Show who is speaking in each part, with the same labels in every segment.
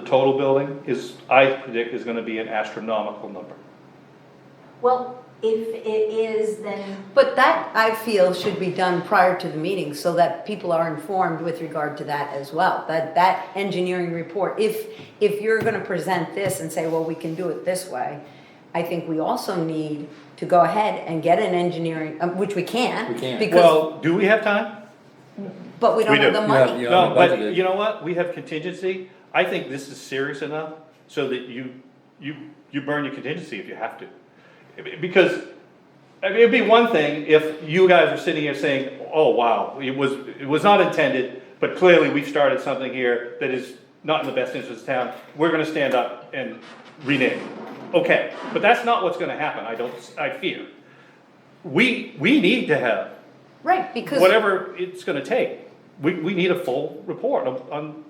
Speaker 1: total building is, I predict, is gonna be an astronomical number.
Speaker 2: Well, if it is, then,
Speaker 3: But that, I feel, should be done prior to the meeting, so that people are informed with regard to that as well. That, that engineering report, if, if you're gonna present this and say, well, we can do it this way, I think we also need to go ahead and get an engineering, um, which we can.
Speaker 4: We can.
Speaker 3: Because,
Speaker 1: Well, do we have time?
Speaker 3: but we don't
Speaker 1: we
Speaker 3: have
Speaker 1: do.
Speaker 3: the
Speaker 4: You have-
Speaker 3: money.
Speaker 4: you
Speaker 1: No,
Speaker 4: haven't
Speaker 1: but
Speaker 4: budgeted.
Speaker 1: you know what? We have contingency. I think this is serious enough so that you, you, you burn your contingency if you have to. Because, I mean, it'd be one thing if you guys were sitting here saying, oh, wow, it was, it was not intended, but clearly we've started something here that is not in the best interest of town. We're gonna stand up and rename. Okay, but that's not what's gonna happen, I don't, I fear. We, we need to have
Speaker 3: Right, because.
Speaker 1: whatever it's gonna take. We, we need a full report on- on,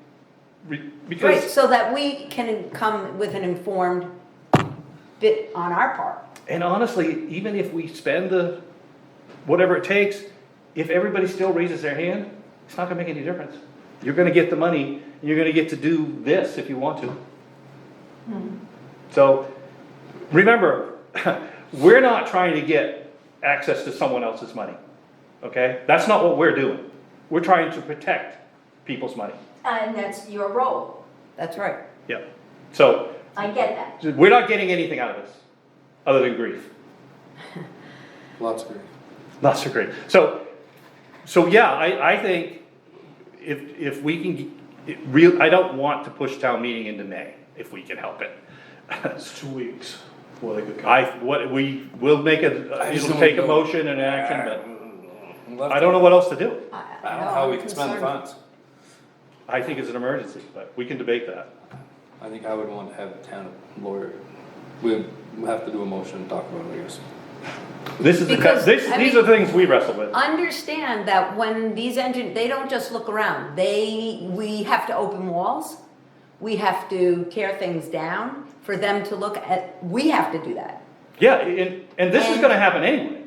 Speaker 1: re-
Speaker 3: Right,
Speaker 1: because,
Speaker 3: so that we can come with an informed bit on our part.
Speaker 1: and honestly, even if we spend the, whatever it takes, if everybody still raises their hand, it's not gonna make any difference. You're gonna get the money, and you're gonna get to do this if you want to. So, remember, we're not trying to get access to someone else's money, okay? That's not what we're doing. We're trying to protect people's money.
Speaker 2: and that's your role,
Speaker 3: That's right.
Speaker 1: Yep. So,
Speaker 2: I get that.
Speaker 1: We're not getting anything out of this, other than grief.
Speaker 4: Lots of grief.
Speaker 1: Not so great. So, so yeah, I, I think if, if we can, g- it real, I don't want to push town meeting into May, if we can help it.
Speaker 5: It's two weeks. Well, they could come.
Speaker 1: I, what, we will make a,
Speaker 4: I just
Speaker 1: it'll
Speaker 4: don't
Speaker 1: take a
Speaker 4: know.
Speaker 1: motion and action, but
Speaker 4: I'm left-
Speaker 1: I don't know what else to do.
Speaker 4: I don't know how we can spend the funds.
Speaker 1: I think it's an emergency, but we can debate that.
Speaker 4: I think I would want to have the town lawyer, we, we have to do a motion and talk about it, I guess.
Speaker 1: This is the,
Speaker 3: Because,
Speaker 1: this,
Speaker 3: I
Speaker 1: these are
Speaker 3: mean-
Speaker 1: things we wrestle with.
Speaker 3: understand that when these engine, they don't just look around. They, we have to open walls. We have to tear things down for them to look at. We have to do that.
Speaker 1: Yeah, and, and this is
Speaker 3: And-
Speaker 1: gonna happen anyway.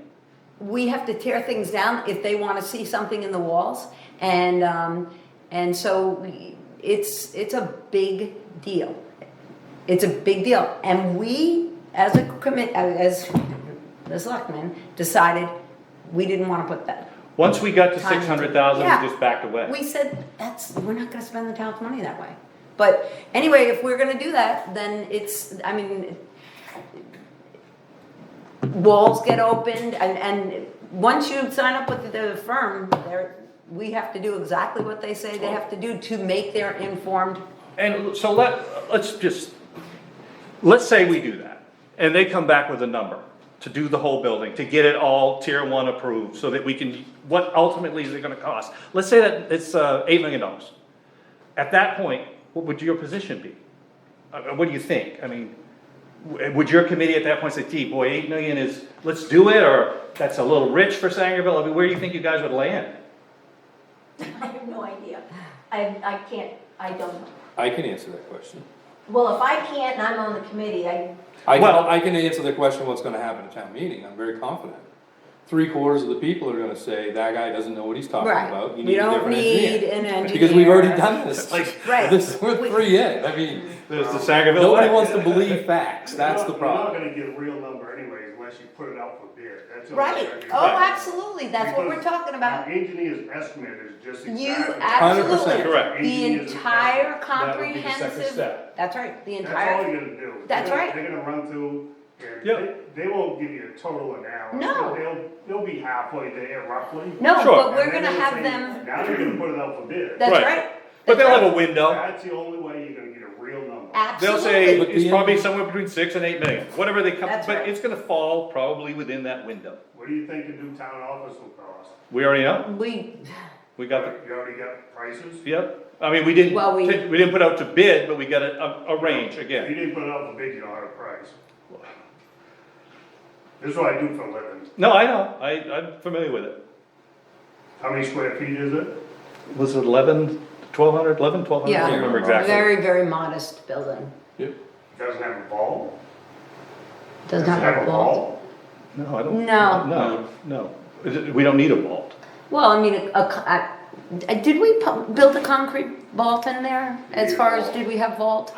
Speaker 3: We have to tear things down if they want to see something in the walls. And um, and so we- it's it's a big deal. It's a big deal. And we, as a commit, as the selectmen, decided we didn't want to put that.
Speaker 1: Once we got to
Speaker 3: Time to-
Speaker 1: six hundred thousand,
Speaker 3: Yeah.
Speaker 1: we just backed away.
Speaker 3: We said, that's, we're not gonna spend the town's money that way. But anyway, if we're gonna do that, then it's, I mean, walls get opened and, and once you sign up with the firm, there, we have to do exactly what they say they have to do to make their informed.
Speaker 1: And so let, let's just, let's say we do that, and they come back with a number to do the whole building, to get it all tier one approved, so that we can, what ultimately is it gonna cost? Let's say that it's, uh, eight million dollars. At that point, what would your position be? Uh, what do you think? I mean, w- uh, would your committee at that point say, gee, boy, eight million is, let's do it, or that's a little rich for Sangerville? I mean, where do you think you guys would land?
Speaker 2: I have no idea. I, I can't, I don't know.
Speaker 4: I can answer that question.
Speaker 2: Well, if I can't and I'm on the committee, I,
Speaker 4: I can,
Speaker 1: Well-
Speaker 4: I can answer the question what's gonna happen at town meeting, I'm very confident. Three quarters of the people are gonna say, that guy doesn't know what he's talking about, you
Speaker 3: We
Speaker 4: need a
Speaker 3: don't
Speaker 4: different
Speaker 3: need
Speaker 4: engineer.
Speaker 3: an engineer.
Speaker 4: Because we've already done this, like,
Speaker 3: Right.
Speaker 4: this, we're three in, I mean,
Speaker 1: There's the Sangerville.
Speaker 4: Um, nobody
Speaker 1: way.
Speaker 4: wants to believe facts, that's
Speaker 5: You're
Speaker 4: the
Speaker 5: not-
Speaker 4: problem.
Speaker 5: You're not gonna get a real number anyways unless you put it out for bid, that's. the only
Speaker 3: Right,
Speaker 5: way I can-
Speaker 3: oh, absolutely, that's what we're
Speaker 5: Because
Speaker 3: talking about.
Speaker 5: An engineer's estimate is just
Speaker 3: You
Speaker 5: exactly.
Speaker 3: absolutely,
Speaker 4: 100%.
Speaker 1: Correct.
Speaker 3: the
Speaker 5: Engineers are-
Speaker 3: entire
Speaker 1: That would be the second
Speaker 3: comprehensive,
Speaker 1: step.
Speaker 3: that's right, the
Speaker 5: That's all
Speaker 3: entire,
Speaker 5: you're gonna do.
Speaker 3: That's
Speaker 5: They're-
Speaker 3: right.
Speaker 5: They're gonna run through, and
Speaker 1: Yeah.
Speaker 5: they, they won't give you a total analysis.
Speaker 3: No.
Speaker 5: They'll, they'll be halfway there roughly.
Speaker 3: no,
Speaker 1: Sure.
Speaker 3: but we're
Speaker 5: And then
Speaker 3: gonna
Speaker 5: they'll
Speaker 3: have
Speaker 5: say,
Speaker 3: them,
Speaker 5: Now you're gonna put it out for bid.
Speaker 3: that's
Speaker 1: Right.
Speaker 3: right.
Speaker 1: But they'll
Speaker 3: that's
Speaker 1: have a window.
Speaker 5: That's the only way you're gonna get a real number.
Speaker 3: right.
Speaker 1: They'll say
Speaker 3: Absolutely.
Speaker 4: But
Speaker 1: it's
Speaker 4: the-
Speaker 1: probably somewhere between six and eight million, whatever they come,
Speaker 3: That's
Speaker 1: but
Speaker 3: right.
Speaker 1: it's gonna fall probably within that window.
Speaker 5: What do you think the new town office will cost?
Speaker 1: We already know,
Speaker 3: We,
Speaker 1: we
Speaker 5: You
Speaker 1: got, the
Speaker 5: already got prices?
Speaker 1: yep, I mean, we didn't,
Speaker 3: Well, we-
Speaker 1: we didn't put out to bid, but we got a, a, a range
Speaker 5: If you
Speaker 1: again.
Speaker 5: didn't put it out for bid, you don't have a price. This is what I do for a living.
Speaker 1: No, I know, I, I'm familiar with it.
Speaker 5: How many square feet is it?
Speaker 1: Was it eleven, twelve hundred, eleven, twelve hundred, I
Speaker 3: Yeah.
Speaker 1: don't remember exactly.
Speaker 3: very, very modest building,
Speaker 4: Yep.
Speaker 5: Doesn't have a ball?
Speaker 3: does not have a vault.
Speaker 1: No, I don't.
Speaker 3: No.
Speaker 1: No, no, Is it- we don't need a vault.
Speaker 3: Well, I mean, a, a co- I- did we pu- build a concrete vault in there, as far as, did we have vault?